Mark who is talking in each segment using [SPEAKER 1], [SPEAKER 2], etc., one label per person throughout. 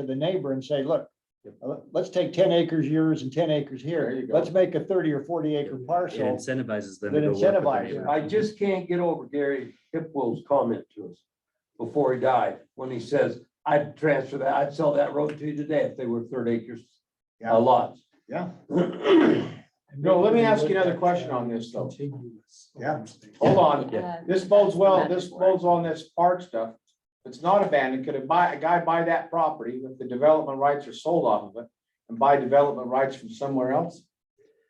[SPEAKER 1] to the neighbor and say, look, uh, let's take ten acres yours and ten acres
[SPEAKER 2] There
[SPEAKER 1] here.
[SPEAKER 2] you go.
[SPEAKER 1] Let's make a thirty or forty acre
[SPEAKER 3] It
[SPEAKER 1] parcel.
[SPEAKER 3] incentivizes them.
[SPEAKER 1] That
[SPEAKER 3] to go work with their
[SPEAKER 1] incentivizes.
[SPEAKER 3] neighbor.
[SPEAKER 2] I just can't get over Gary Hipwell's comment to us before he died, when he says, I'd transfer that, I'd sell that road to you today if they were third acres
[SPEAKER 1] Yeah.
[SPEAKER 2] uh, lots.
[SPEAKER 1] Yeah.
[SPEAKER 4] No, let me ask you another question on this, though.
[SPEAKER 1] Yeah.
[SPEAKER 4] Hold on,
[SPEAKER 3] Yeah.
[SPEAKER 4] this bodes well, this bodes on this park stuff. It's not abandoned, could a buy, a guy buy that property if the development rights are sold off of it and buy development rights from somewhere else?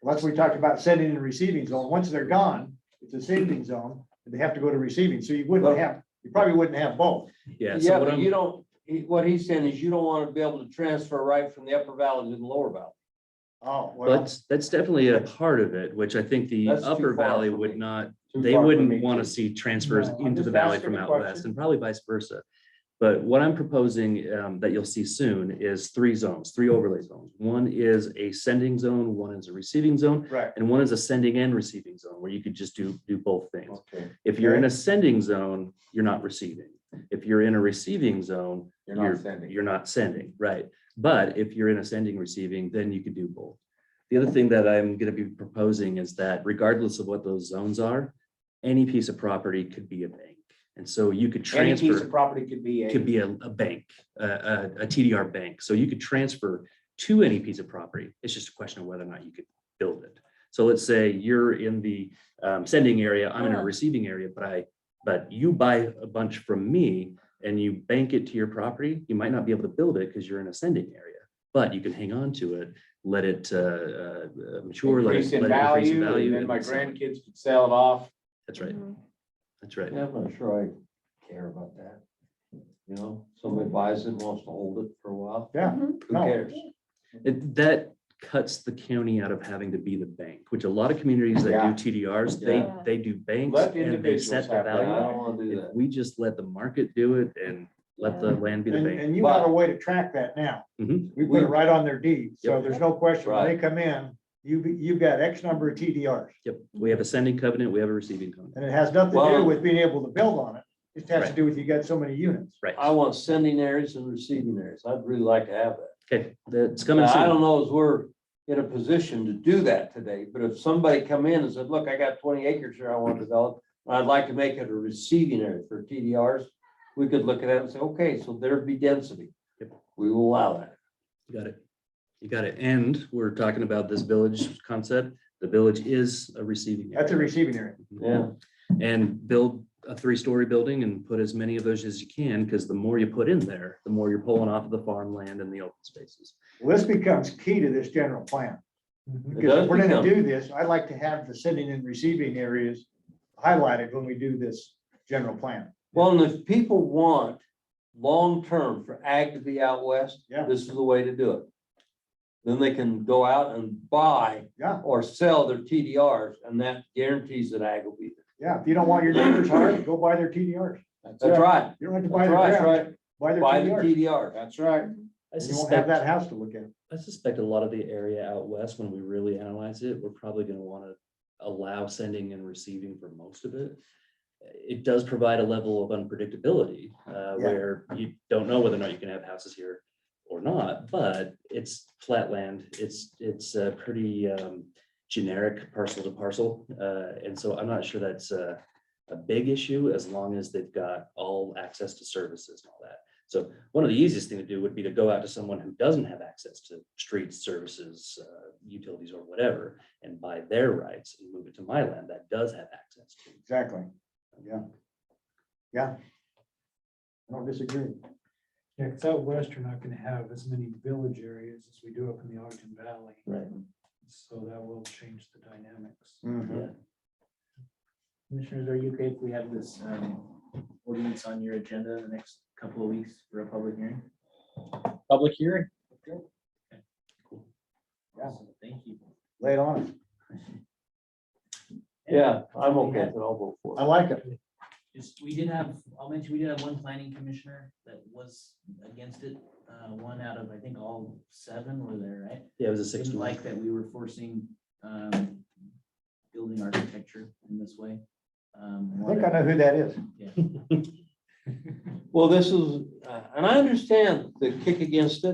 [SPEAKER 1] Well, That's what we talked about sending and receiving zone. Once they're gone, it's a sending zone, and they have to go to receiving. So you wouldn't have, you probably wouldn't have both.
[SPEAKER 3] Yeah,
[SPEAKER 2] Yeah,
[SPEAKER 3] so what
[SPEAKER 2] but you
[SPEAKER 3] I'm,
[SPEAKER 2] don't, he- what he's saying is you don't want to be able to transfer right from the upper valley to the lower valley.
[SPEAKER 1] Oh, well,
[SPEAKER 3] but that's definitely a part of it, which I think the
[SPEAKER 2] That's too
[SPEAKER 3] upper
[SPEAKER 2] far
[SPEAKER 3] valley
[SPEAKER 2] for
[SPEAKER 3] would
[SPEAKER 2] me.
[SPEAKER 3] not,
[SPEAKER 4] Too
[SPEAKER 3] they
[SPEAKER 4] far for me.
[SPEAKER 3] wouldn't want to see transfers
[SPEAKER 4] No, I'm
[SPEAKER 3] into the
[SPEAKER 4] just
[SPEAKER 3] valley
[SPEAKER 4] asking
[SPEAKER 3] from
[SPEAKER 4] a
[SPEAKER 3] out west
[SPEAKER 4] question.
[SPEAKER 3] and probably vice versa. But what I'm proposing um, that you'll see soon is three zones, three overlay zones. One is a sending zone, one is a receiving zone,
[SPEAKER 1] right.
[SPEAKER 3] and one is a sending and receiving zone where you could just do, do both things.
[SPEAKER 4] Okay.
[SPEAKER 3] If you're in a sending zone, you're not receiving. If you're in a receiving zone,
[SPEAKER 4] You're not sending.
[SPEAKER 3] you're not sending, right? But if you're in a sending receiving, then you could do both. The other thing that I'm gonna be proposing is that regardless of what those zones are, any piece of property could be a bank. And so you could
[SPEAKER 4] Any piece of
[SPEAKER 3] transfer,
[SPEAKER 4] property could be a.
[SPEAKER 3] could be a, a bank, a, a, a TDR bank. So you could transfer to any piece of property. It's just a question of whether or not you could build it. So let's say you're in the um, sending area, I'm in a
[SPEAKER 5] Huh.
[SPEAKER 3] receiving area, but I, but you buy a bunch from me and you bank it to your property, you might not be able to build it because you're in a sending area. But you can hang on to it, let it uh, uh, mature. let it-
[SPEAKER 4] Increase in
[SPEAKER 3] let it increase
[SPEAKER 4] value, and then
[SPEAKER 3] and
[SPEAKER 4] my
[SPEAKER 3] sell it.
[SPEAKER 4] grandkids could sell it off.
[SPEAKER 3] That's right, that's right.
[SPEAKER 2] Yeah, I'm not sure I care about that. You know, somebody buys it, wants to hold it for a while,
[SPEAKER 1] Yeah.
[SPEAKER 2] who
[SPEAKER 1] No.
[SPEAKER 2] cares?
[SPEAKER 3] It- That cuts the county out of having to be the bank, which a lot of communities
[SPEAKER 4] Yeah.
[SPEAKER 3] that do TDRs, they,
[SPEAKER 5] Yeah.
[SPEAKER 3] they do banks
[SPEAKER 4] Let
[SPEAKER 3] and they
[SPEAKER 4] individuals
[SPEAKER 3] set the
[SPEAKER 4] have that.
[SPEAKER 2] Yeah, I
[SPEAKER 3] value.
[SPEAKER 2] don't want to do
[SPEAKER 3] If
[SPEAKER 2] that.
[SPEAKER 3] we just let the market do it and let the land be the
[SPEAKER 1] And,
[SPEAKER 3] bank.
[SPEAKER 1] and you have a way to track that now.
[SPEAKER 3] Mhm.
[SPEAKER 1] We put it right on their deed, so
[SPEAKER 3] Yep.
[SPEAKER 1] there's no question. When they come in, you, you've got X number of TDRs.
[SPEAKER 3] Yep, we have a sending covenant, we have a receiving covenant.
[SPEAKER 1] And it has nothing to do
[SPEAKER 2] Well-
[SPEAKER 1] with being able to build on it. It has to
[SPEAKER 3] Right.
[SPEAKER 1] do with you got so many units.
[SPEAKER 3] Right,
[SPEAKER 2] I want sending areas and receiving areas. I'd really like to have that.
[SPEAKER 3] okay, that's coming
[SPEAKER 2] Now, I
[SPEAKER 3] soon.
[SPEAKER 2] don't know if we're in a position to do that today, but if somebody come in and said, look, I got twenty acres here I want to develop, and I'd like to make it a receiving area for TDRs, we could look at that and say, okay, so there'd be density.
[SPEAKER 3] Yep.
[SPEAKER 2] We will allow that.
[SPEAKER 3] You Got it. You got it. And we're talking about this village concept. The village is a receiving.
[SPEAKER 1] That's a
[SPEAKER 3] area.
[SPEAKER 1] receiving area.
[SPEAKER 2] Yeah,
[SPEAKER 3] And build a three-story building and put as many of those as you can, because the more you put in there, the more you're pulling off of the farmland and the open spaces.
[SPEAKER 1] Well, This becomes key to this general plan.
[SPEAKER 2] It
[SPEAKER 1] Because
[SPEAKER 2] does
[SPEAKER 1] if we're gonna
[SPEAKER 2] become-
[SPEAKER 1] do this, I'd like to have the sending and receiving areas highlighted when we do this general plan.
[SPEAKER 2] Well, and if people want long-term for ag to be out west,
[SPEAKER 1] Yeah.
[SPEAKER 2] this is the way to do it. Then they can go out and buy
[SPEAKER 1] Yeah.
[SPEAKER 2] or sell their TDRs, and that guarantees that ag will be there.
[SPEAKER 1] Yeah, if you don't want your neighbors hard, go buy their TDRs.
[SPEAKER 2] That's right.
[SPEAKER 1] You don't have to buy
[SPEAKER 2] That's
[SPEAKER 1] their
[SPEAKER 2] right.
[SPEAKER 1] ground, buy their
[SPEAKER 2] Buy the
[SPEAKER 1] TDRs.
[SPEAKER 2] TDR.
[SPEAKER 4] That's right.
[SPEAKER 3] I
[SPEAKER 1] You won't have
[SPEAKER 3] suspect,
[SPEAKER 1] that house to look at.
[SPEAKER 3] I suspect a lot of the area out west, when we really analyze it, we're probably gonna wanna allow sending and receiving for most of it. It does provide a level of unpredictability, uh, where you don't know whether or not you can have houses here or not, but it's flat land. It's, it's a pretty, um, generic parcel to parcel. Uh, and so I'm not sure that's a, a big issue as long as they've got all access to services and all that. So one of the easiest thing to do would be to go out to someone who doesn't have access to streets, services, uh, utilities or whatever and buy their rights and move it to my land that does have access to.
[SPEAKER 1] Exactly. Yeah. Yeah. I don't disagree.
[SPEAKER 6] Yeah, because out west, you're not gonna have as many village areas as we do up in the Ogden Valley,
[SPEAKER 3] Right.
[SPEAKER 6] so that will change the dynamics.
[SPEAKER 2] Mm-hmm.
[SPEAKER 1] Mhm.
[SPEAKER 7] Commissioners, are you okay if we have this um, ordinance on your agenda the next couple of weeks for a public hearing?
[SPEAKER 6] Public hearing?
[SPEAKER 7] Awesome, Thank you.
[SPEAKER 1] Lay it on. us.
[SPEAKER 2] Yeah, I'm okay. with it. I'll vote for
[SPEAKER 1] I
[SPEAKER 2] it.
[SPEAKER 1] like it.
[SPEAKER 7] Just, we did have, I'll mention, we did have one planning commissioner that was against it. uh, One out of, I think, all seven were there, right?
[SPEAKER 3] Yeah, it was a six to
[SPEAKER 7] Didn't
[SPEAKER 3] one.
[SPEAKER 7] like that we were forcing um, building architecture in this way.
[SPEAKER 1] I think I know who that is.
[SPEAKER 2] Well, this is, uh, and I understand the kick against it.